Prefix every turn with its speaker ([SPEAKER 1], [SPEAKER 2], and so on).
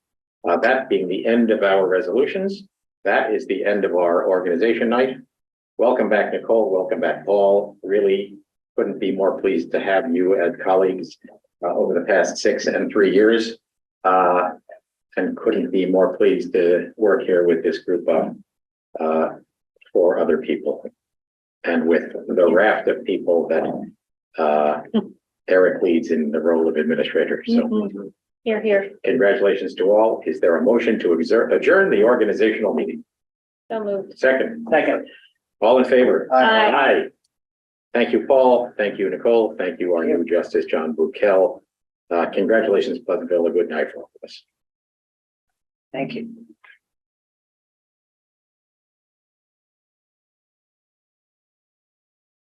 [SPEAKER 1] Uh, that being the end of our resolutions, that is the end of our organization night. Welcome back, Nicole. Welcome back, Paul. Really couldn't be more pleased to have you as colleagues uh, over the past six and three years. Uh, and couldn't be more pleased to work here with this group of uh, four other people. And with the raft of people that uh, Eric leads in the role of administrator. So
[SPEAKER 2] Here, here,
[SPEAKER 1] congratulations to all. Is there a motion to exer- adjourn the organizational meeting?
[SPEAKER 2] so moved.
[SPEAKER 1] Second,
[SPEAKER 3] Second.
[SPEAKER 1] all in favor?
[SPEAKER 2] Aye.
[SPEAKER 1] Aye. Thank you, Paul. Thank you, Nicole. Thank you, our new Justice, John Bukel. Uh, congratulations, Pleasantville. A good night for all of us.
[SPEAKER 3] Thank you.